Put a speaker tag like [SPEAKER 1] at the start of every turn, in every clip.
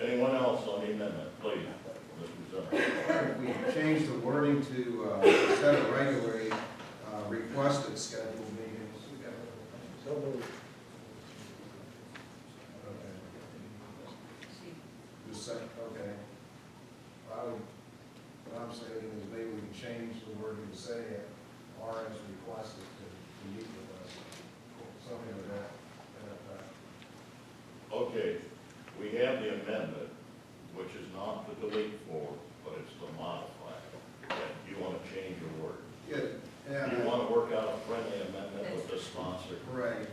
[SPEAKER 1] Anyone else on the amendment, please, Mr. Zimmer?
[SPEAKER 2] If we change the wording to, uh, instead of regularly, uh, requested scheduled meetings.
[SPEAKER 3] So moved.
[SPEAKER 2] The second, okay. I would, what I'm saying is maybe we can change the wording to say, or as requested to, to meet with us. Something like that, that, effect.
[SPEAKER 1] Okay, we have the amendment, which is not the delete form, but it's the modify. And you want to change your word.
[SPEAKER 2] Good, uh, yeah,
[SPEAKER 1] You want to work out a friendly amendment with the sponsor.
[SPEAKER 2] right.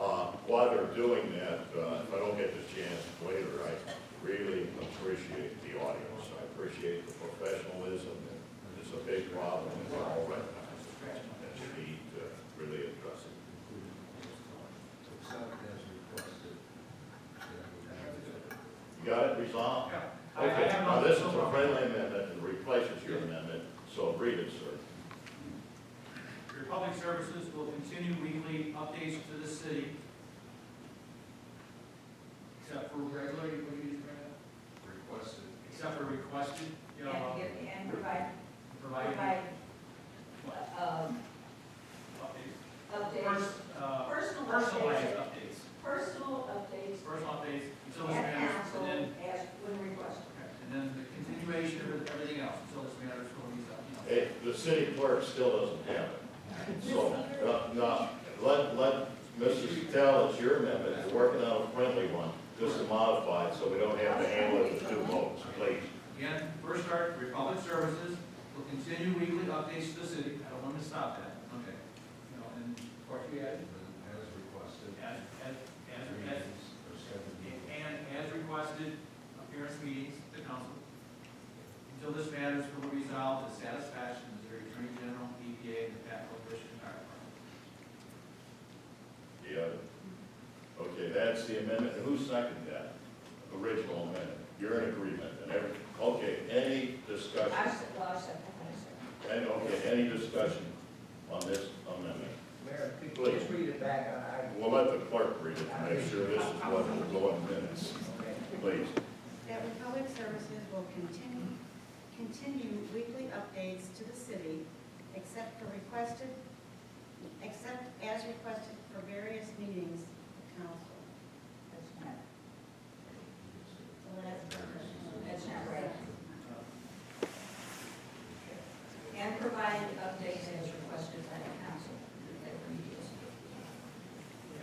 [SPEAKER 1] Uh, While they're doing that, uh, if I don't get the chance later, I really appreciate the audience. I appreciate the professionalism. It's a big problem, and we're all recognized. And we need to really address it.
[SPEAKER 2] Accept as requested. Yeah.
[SPEAKER 1] You got it resolved?
[SPEAKER 4] I- I
[SPEAKER 1] Okay,
[SPEAKER 4] have
[SPEAKER 1] now
[SPEAKER 4] no-
[SPEAKER 1] this is
[SPEAKER 4] no
[SPEAKER 1] a
[SPEAKER 4] problem.
[SPEAKER 1] friendly amendment and replaces your amendment, so read it, sir.
[SPEAKER 4] Your public services will continue weekly updates to the city. Except for regularly, what do you just read out?
[SPEAKER 2] Requested.
[SPEAKER 4] except for requested, you know,
[SPEAKER 5] And,
[SPEAKER 4] uh,
[SPEAKER 5] give- and provide,
[SPEAKER 4] provided
[SPEAKER 5] provide, um,
[SPEAKER 4] updates.
[SPEAKER 5] updates,
[SPEAKER 4] First, uh,
[SPEAKER 5] personal
[SPEAKER 4] personalized
[SPEAKER 5] updates,
[SPEAKER 4] updates,
[SPEAKER 5] personal updates
[SPEAKER 4] personal updates, until this
[SPEAKER 5] at
[SPEAKER 4] matters,
[SPEAKER 5] council
[SPEAKER 4] and then,
[SPEAKER 5] as when requested.
[SPEAKER 4] and then the continuation of everything else, until this matters, until these, uh, you know.
[SPEAKER 1] Eh, The city clerk still doesn't have it. So, uh, no, let, let Mrs. Tell, it's your amendment, you're working on a friendly one, just to modify it, so we don't have to handle it with two votes, please.
[SPEAKER 4] Again, first start, your public services will continue weekly updates to the city, I don't want to stop that, okay? You know, and, of course, we added,
[SPEAKER 2] As requested.
[SPEAKER 4] as, as, as, as
[SPEAKER 2] Meetings are scheduled.
[SPEAKER 4] And as requested, appearance meetings to the council. Until this matter is fully resolved to satisfaction of the Attorney General, EPA, and the Pat Coalition Fire Department.
[SPEAKER 1] Yeah. Okay, that's the amendment, who seconded that? Original amendment, you're in agreement, and every, okay, any discussion?
[SPEAKER 5] I said, well, I said, I said,
[SPEAKER 1] And, okay, any discussion on this amendment?
[SPEAKER 3] Mayor, could you just read it back on item?
[SPEAKER 1] We'll let the clerk read it to make sure this is what will go in minutes,
[SPEAKER 3] Okay.
[SPEAKER 1] please.
[SPEAKER 6] That Republic Services will continue, continue weekly updates to the city, except for requested, except as requested for various meetings of council.
[SPEAKER 5] that's not,
[SPEAKER 6] So that's-
[SPEAKER 5] that's not right. And provide updates as requested by the council. at previous.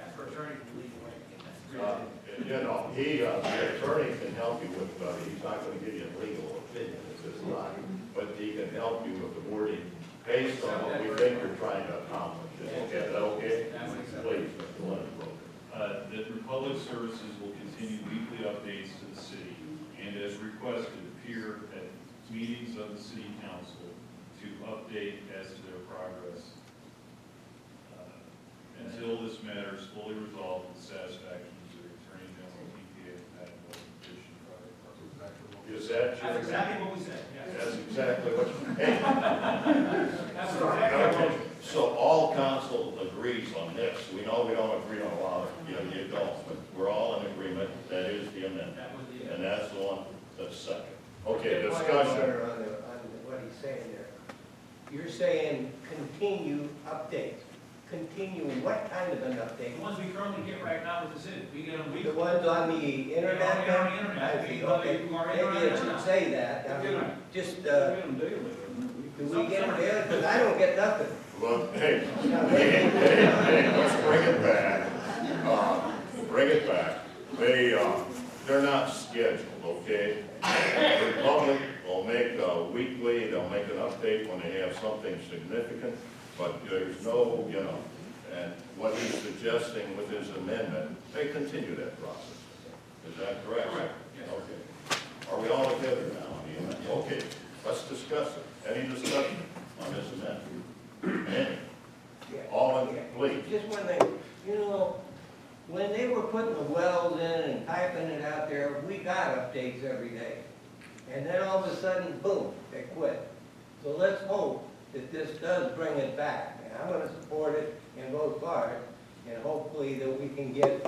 [SPEAKER 4] Ask for attorney to lead the way. That's the
[SPEAKER 1] Uh,
[SPEAKER 4] reason.
[SPEAKER 1] You know, he, uh, the attorney can help you with, uh, he's not gonna give you a legal opinion, it's his line, but he can help you with the wording based on what we think you're trying to accomplish. Is that okay?
[SPEAKER 4] That makes sense.
[SPEAKER 1] Please, Mr. Lindblom.
[SPEAKER 7] Uh, That Republic Services will continue weekly updates to the city and as requested appear at meetings of the city council to update as to their progress uh, until this matter is fully resolved in satisfaction to the Attorney General, EPA, and Patent Petition Project.
[SPEAKER 1] Is that your?
[SPEAKER 4] That's exactly what we said, yes.
[SPEAKER 1] That's exactly what, hey,
[SPEAKER 4] That's exactly what
[SPEAKER 1] Okay, so all council agrees on this, we know we don't agree on a lot, of- you know, you don't, but we're all in agreement, that is the amendment,
[SPEAKER 4] that was the.
[SPEAKER 1] and that's the one that's second. Okay, discussion,
[SPEAKER 3] Wonder On, the- on what he's saying there. You're saying continue updates. Continue what kind of an
[SPEAKER 4] The
[SPEAKER 3] update?
[SPEAKER 4] ones we currently get right now with the city, we get them
[SPEAKER 3] The
[SPEAKER 4] weekly.
[SPEAKER 3] ones on the internet?
[SPEAKER 4] Yeah, on the
[SPEAKER 3] now?
[SPEAKER 4] internet.
[SPEAKER 3] I see,
[SPEAKER 4] Whether
[SPEAKER 3] okay. Uh,
[SPEAKER 4] you are in or
[SPEAKER 3] Maybe it
[SPEAKER 4] not.
[SPEAKER 3] should say that. I mean,
[SPEAKER 4] Yeah.
[SPEAKER 3] Just, uh, do we get it? Because I don't get nothing.
[SPEAKER 1] look, hey, hey, hey, hey, let's bring it back, uh, bring it back. They, uh, they're not scheduled, okay? Republic will make, uh, weekly, they'll make an update when they have something significant, but there's no, you know, and what he's suggesting with his amendment, they continue that process. Is that correct?
[SPEAKER 4] Correct, yes.
[SPEAKER 1] Okay. Are we all together now on the amendment? Okay, let's discuss it. Any discussion on this amendment? Any?
[SPEAKER 3] Yeah.
[SPEAKER 1] All in, please.
[SPEAKER 3] Just one thing, you know, when they were putting the wells in and piping it out there, we got updates every day. And then all of a sudden, boom, they quit. So let's hope that this does bring it back. And I'm gonna support it and vote for it, and hopefully that we can get